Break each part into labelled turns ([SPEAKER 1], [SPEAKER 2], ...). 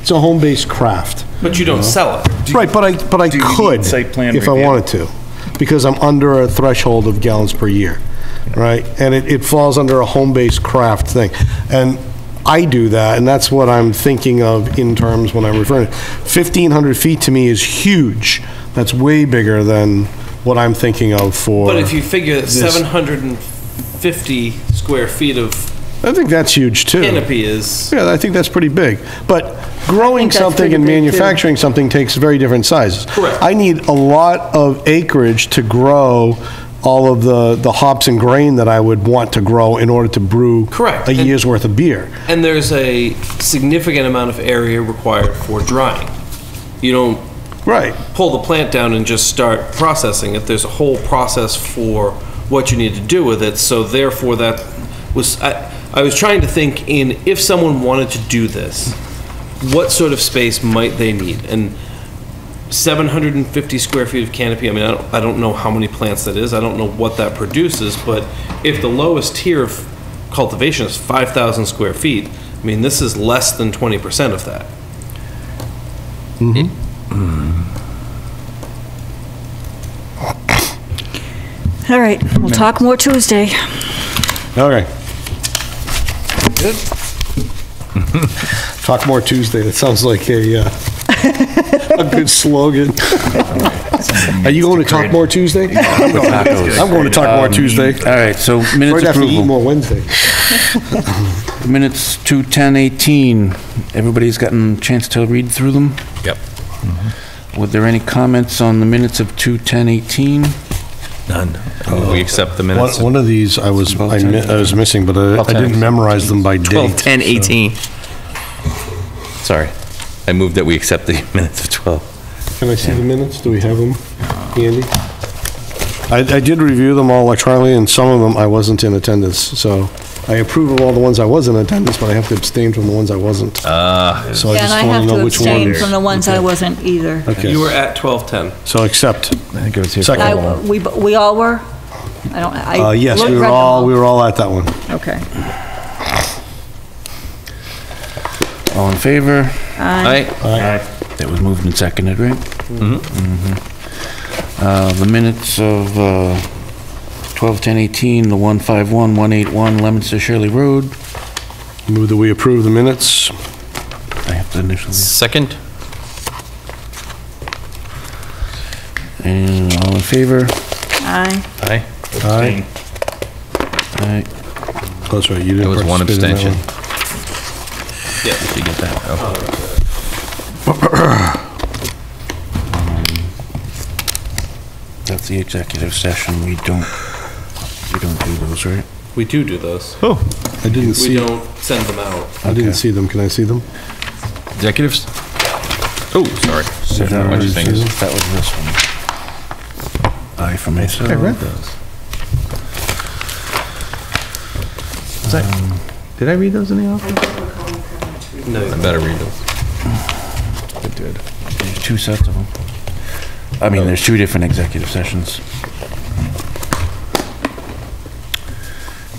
[SPEAKER 1] it's a home-based craft.
[SPEAKER 2] But you don't sell it.
[SPEAKER 1] Right, but I, but I
[SPEAKER 3] Do you need
[SPEAKER 1] could,
[SPEAKER 3] site plan
[SPEAKER 1] if I
[SPEAKER 3] review?
[SPEAKER 1] wanted to, because I'm under a threshold of gallons per year, right? And it, it falls under a home-based craft thing. And I do that, and that's what I'm thinking of in terms when I'm referring. 1,500 feet to me is huge. That's way bigger than what I'm thinking of for.
[SPEAKER 2] But if you figure that
[SPEAKER 1] This-
[SPEAKER 2] 750 square feet of
[SPEAKER 1] I think that's huge, too.
[SPEAKER 2] canopy is,
[SPEAKER 1] Yeah, I think that's pretty big. But growing
[SPEAKER 4] that's
[SPEAKER 1] something
[SPEAKER 4] pretty
[SPEAKER 1] and
[SPEAKER 4] big, too.
[SPEAKER 1] manufacturing something takes very different sizes.
[SPEAKER 2] Correct.
[SPEAKER 1] I need a lot of acreage to grow all of the, the hops and grain that I would want to grow in order to brew.
[SPEAKER 2] Correct.
[SPEAKER 1] A
[SPEAKER 2] And-
[SPEAKER 1] year's worth of beer.
[SPEAKER 2] and there's a significant amount of area required for drying. You don't
[SPEAKER 1] Right.
[SPEAKER 2] pull the plant down and just start processing it. There's a whole process for what you need to do with it. So therefore, that was I, I was trying to think in if someone wanted to do this, what sort of space might they need? And 750 square feet of canopy. I mean, I don't, I don't know how many plants that is. I don't know what that produces. But if the lowest tier of cultivation is 5,000 square feet, I mean, this is less than 20% of that.
[SPEAKER 4] All right, we'll talk more Tuesday.
[SPEAKER 1] Okay. Talk more Tuesday. That sounds like a, uh, a good slogan. Are you going to Talk More Tuesday? I'm going- I'm going to Talk More Tuesday. Um,
[SPEAKER 5] All right, so minutes
[SPEAKER 1] Right after you eat
[SPEAKER 5] approval.
[SPEAKER 1] more Wednesday.
[SPEAKER 5] Minutes to 10:18. Everybody's gotten a chance to read through them? Mm-hmm.
[SPEAKER 6] Yep.
[SPEAKER 5] Were there any comments on the minutes of 2:10:18?
[SPEAKER 6] None. We accept the
[SPEAKER 1] One,
[SPEAKER 6] minutes.
[SPEAKER 1] one of these I was, I mi- I was missing, but I I didn't memorize them by
[SPEAKER 6] Twelve,
[SPEAKER 1] date.
[SPEAKER 6] ten, eighteen. Sorry. I moved that we accept the minutes of 12.
[SPEAKER 1] Can I see the minutes? Do we have them handy? I, I did review them all electronically, and some of them I wasn't in attendance, so I approve of all the ones I was in attendance, but I have to abstain from the ones I wasn't. Ah. So I
[SPEAKER 4] Yeah, and I
[SPEAKER 1] just want
[SPEAKER 4] have
[SPEAKER 1] to
[SPEAKER 4] to
[SPEAKER 1] know which
[SPEAKER 4] abstain
[SPEAKER 1] ones.
[SPEAKER 4] from the ones I wasn't either.
[SPEAKER 1] Okay,
[SPEAKER 2] You were at 1210.
[SPEAKER 1] so accept.
[SPEAKER 7] I think it was here. for a
[SPEAKER 1] Second.
[SPEAKER 7] while.
[SPEAKER 4] I, we, we all were? I don't, I.
[SPEAKER 1] Uh, yes,
[SPEAKER 4] looked-
[SPEAKER 1] we were
[SPEAKER 4] read them
[SPEAKER 1] all, we were all at that one.
[SPEAKER 4] Okay.
[SPEAKER 5] All in favor?
[SPEAKER 6] Aye.
[SPEAKER 5] That was moved and seconded, right? Mm-hmm. The minutes of uh, 12:10:18, the 151, 181 Lemonster Shirley Road.
[SPEAKER 1] Move that we approve the minutes.
[SPEAKER 5] I have to initial these.
[SPEAKER 6] Second?
[SPEAKER 5] And all in favor?
[SPEAKER 4] Aye.
[SPEAKER 6] Aye.
[SPEAKER 1] Aye.
[SPEAKER 5] Aye.
[SPEAKER 1] That's right, you
[SPEAKER 6] There
[SPEAKER 1] didn't
[SPEAKER 6] was one
[SPEAKER 1] participate in that one.
[SPEAKER 6] abstention. Yeah. Did you get that? Oh.
[SPEAKER 5] That's the executive session. We don't, we don't do those, right?
[SPEAKER 2] We do do those.
[SPEAKER 1] I didn't
[SPEAKER 2] We
[SPEAKER 1] see,
[SPEAKER 2] don't send them out.
[SPEAKER 1] I didn't see them. Can I see them?
[SPEAKER 6] Executives? Oh, sorry. What'd you think?
[SPEAKER 5] That was this one. I for myself. I read those.
[SPEAKER 7] Did I read those in the office?
[SPEAKER 6] I better read them.
[SPEAKER 5] There's two sets of them. I mean, there's two different executive sessions.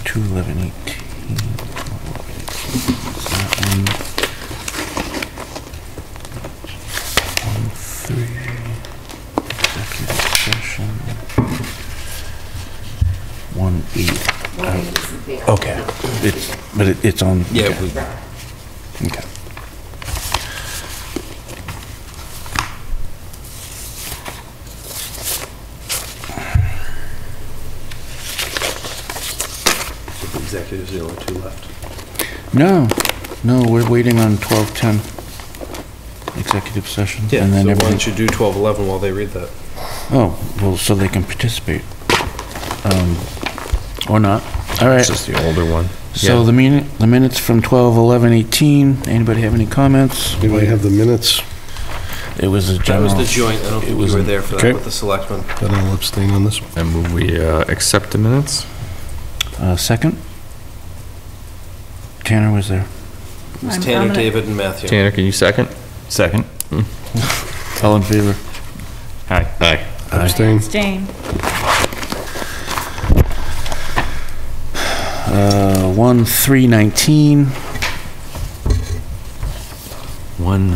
[SPEAKER 5] Two eleven eighteen. One three. Executive session. One eight. Okay, it's, but it- it's on.
[SPEAKER 6] Yeah, we-
[SPEAKER 5] Okay.
[SPEAKER 2] Executives, the only two left.
[SPEAKER 5] No, no, we're waiting on 12:10 executive session.
[SPEAKER 2] Yeah,
[SPEAKER 5] and then
[SPEAKER 2] so why
[SPEAKER 5] everything.
[SPEAKER 2] don't you do 1211 while they read that?
[SPEAKER 5] Oh, well, so they can participate. Um, Or not. All right.
[SPEAKER 6] It's just the older one.
[SPEAKER 5] So
[SPEAKER 6] Yeah.
[SPEAKER 5] the minute, the minutes from 12:11:18, anybody have any comments?
[SPEAKER 1] Anybody have the minutes?
[SPEAKER 5] It was a
[SPEAKER 2] That
[SPEAKER 5] general.
[SPEAKER 2] was the joint, I don't
[SPEAKER 5] It
[SPEAKER 2] think you
[SPEAKER 5] was
[SPEAKER 2] were
[SPEAKER 5] an-
[SPEAKER 2] there for
[SPEAKER 1] okay.
[SPEAKER 2] that with the selectmen.
[SPEAKER 1] Then I'll abstain on this one.
[SPEAKER 6] I move we uh, accept the minutes?
[SPEAKER 5] Uh, Second? Tanner was there.
[SPEAKER 2] It was
[SPEAKER 4] I'm- I'm
[SPEAKER 2] Tanner,
[SPEAKER 4] gonna-
[SPEAKER 2] David, and Matthew.
[SPEAKER 6] Tanner, can you second? Second.
[SPEAKER 5] All in favor?
[SPEAKER 6] Aye. Aye.
[SPEAKER 1] Abstain.
[SPEAKER 4] Abstain.
[SPEAKER 5] Uh, 1:3:19.
[SPEAKER 6] One